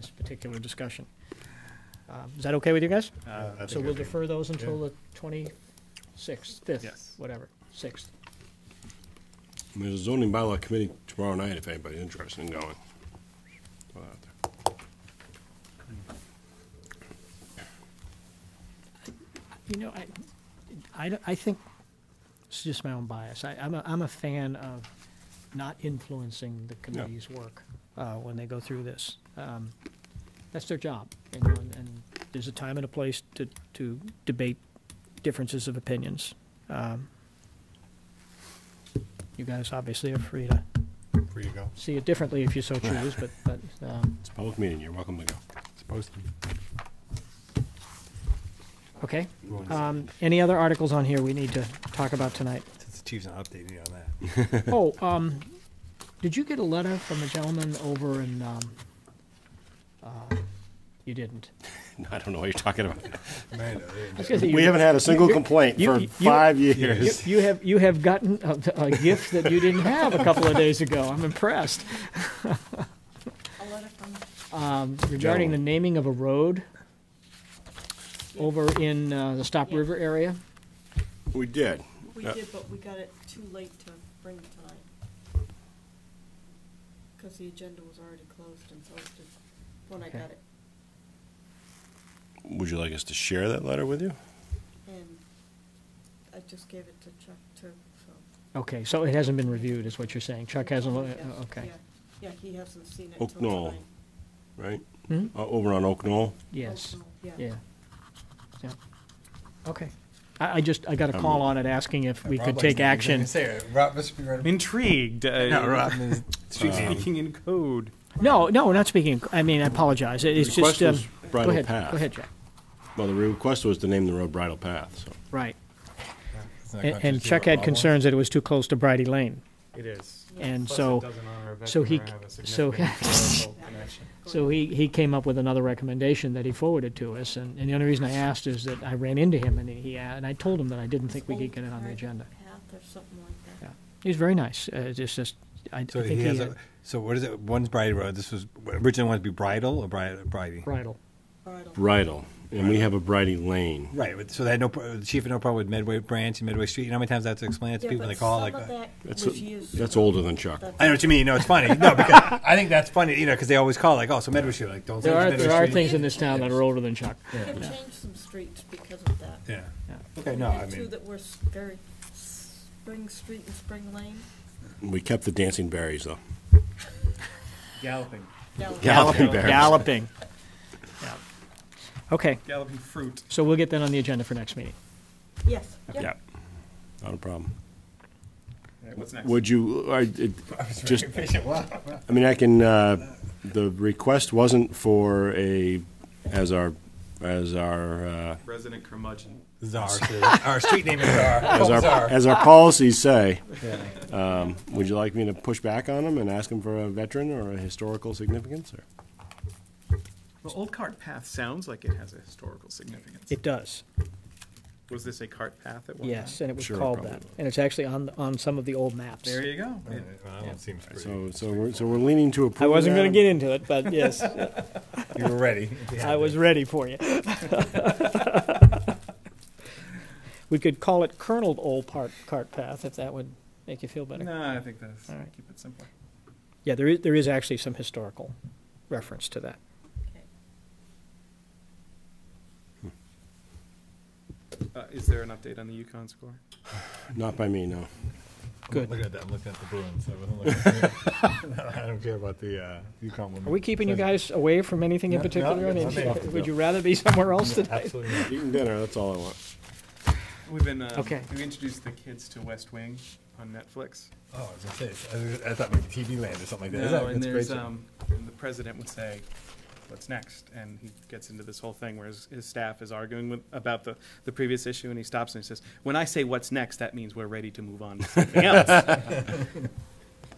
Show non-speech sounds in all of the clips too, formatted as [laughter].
this particular discussion. Um, Is that okay with you guys? Uh, I So think we'll I think- defer those until the 26th, 5th, Yes. whatever, 6th. There's a zoning bylaw committee tomorrow night if anybody's interested in going. Put it out there. You know, I, I, don't- I think, it's just my own bias. I, I'm a, I'm a fan of not influencing the committee's work, uh, when they go through this. Um, That's their job, you know, and, and there's a time and a place to, to debate differences of opinions. Um, You guys obviously are free to Free to go. see it differently if you [laughs] so choose, but, but, um, It's a public meeting, you're welcome to go. [laughs] Supposed to. okay. You want to- Um, any other articles on here we need to talk about tonight? Since the chief's not updating me on that. [laughs] Oh, um, did you get a letter from a gentleman over in, um, uh, you didn't? I don't know what you're talking about. Man, uh, I was gonna say you- We haven't had a single complaint you- for you- five You, years. you have, you have gotten a, a gift that you didn't have a couple of days ago. I'm impressed. A letter from, Regarding the Gentleman. naming of a road over in, uh, the Stop River area. We did. we Yeah. did, but we got it too late to bring it tonight. Because the agenda was already closed and posted when I Okay. got it. Would you like us to share that letter with you? And I just gave it to Chuck too, so. Okay, so it hasn't been reviewed, is what you're saying. Chuck hasn't, lo- Yeah, uh, okay. yeah. Yeah, he hasn't seen it Oh, till no. tonight. Right? Hmm? Uh, Over on Oak Knoll? Yes. Oh, no, Yeah. Yeah. Okay. I, I just, I got a Um, call on it asking if we Rob could likes take that. I was gonna action. Say, Rob must be right. Intrigued. Uh, No, Rob [laughs] is- Speaking in code. No, no, we're not speaking, I mean, I apologize. It- It's The just, question um, was go bridle ahead, path. go ahead, Jack. Well, the request was to name the road Bridle Path, so. Right. [laughs] It's not And- And contradictory Chuck what had Rob concerns that it was too close to Bridie Lane. It is. And so, so he- so- [laughs] so he, he came up with another recommendation that he forwarded to us. And, and the only reason I asked is that I ran into him and he, and I told him that I didn't think we could get it on the Old agenda. Path or something like Yeah. that. He's very nice. Uh, it's just, I I So think he he uh, has a, had so what is it? One's Bridie Road. This was originally wanted to be Bridle or Bridie. Bridie. bridle. Bridle. Bridle, and we have a Bridie Lane. Right. but- So they had no pro- the chief had no problem with Medway Branch and Midway Street. You know how many times I have to explain it to Yeah, people when but they call like. some of uh, that That's, was years that's ago. older than Chuck. That's- I know what you mean. No, it's funny. No, because I think that's funny. You know, because they always call like, oh, so Medway Street, like, don't say There are, Medway there are Street. things in this town that are older than Chuck. We have changed some streets because of that. Yeah. Yeah. Okay. We No, had I Two mean. that were s- very, Spring Street and Spring Lane. We kept the dancing berries, though. Galloping. Galloping. Galloping berries. Galloping. Yeah. Okay, Galloping fruit. so we'll get that on the agenda for next meeting. Yes. Yeah. Not a problem. All right, What's next? Would you, I, it, [laughs] just, Patient. Wow. I mean, I can, uh, the request wasn't for a, as our, as our, uh, Resident curmudgeon. [laughs] Czar. says- Our street name is Czar. as Oh, our, Czar. as our policies say. Um, would you like me to push back on them and ask them for a veteran or a historical significance or? Well, Old Cart Path sounds like it has a historical significance. It does. Was this a cart path at one time? Yes, and it was Sure, called probably that. was. And it's actually on, on some of the old maps. There you go. It- Well, that seems pretty- So, so we're, so we're leaning to approve. I wasn't that. going to get into it, but [laughs] yes, You were [laughs] ready. I was ready for you. [laughs] We could call it Colonel Old Part, Cart Path, if that would make you feel better. No, I think that's, All right. keep it simple. Yeah, there is, there is actually some historical reference to that. Okay. Uh, is there an update on the Yukon score? Not by me, no. Good. Look at that. I'm looking at the Bruins. I wasn't looking. [laughs] at- [laughs] I don't care about the uh, UConn women. Are we keeping you guys away from anything in No, no, particular? I mean, [laughs] nothing. would you rather be somewhere else today? Absolutely not. Eating dinner, that's all I want. We've been, um, Okay. we introduced the kids to West Wing on Netflix. Oh, I was gonna say. I was- I thought maybe TV Land or something like that. No, That's and there's, great. um, and the president would say, what's next? And he gets into this whole thing where his, his staff is arguing with, about the, the previous issue, and he stops and he says, when I say what's next, that means we're ready to move on to something else.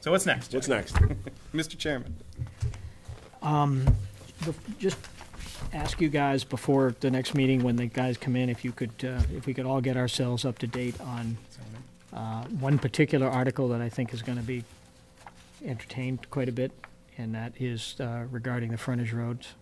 So what's next, Jack? What's next? Mr. Chairman? Bef- [laughs] Just ask you guys before the next meeting, when the guys come in, if you could, uh, if we could all get ourselves up to date on uh, one particular article that I think is going to be entertained quite a bit, and that is uh, regarding the frontage roads.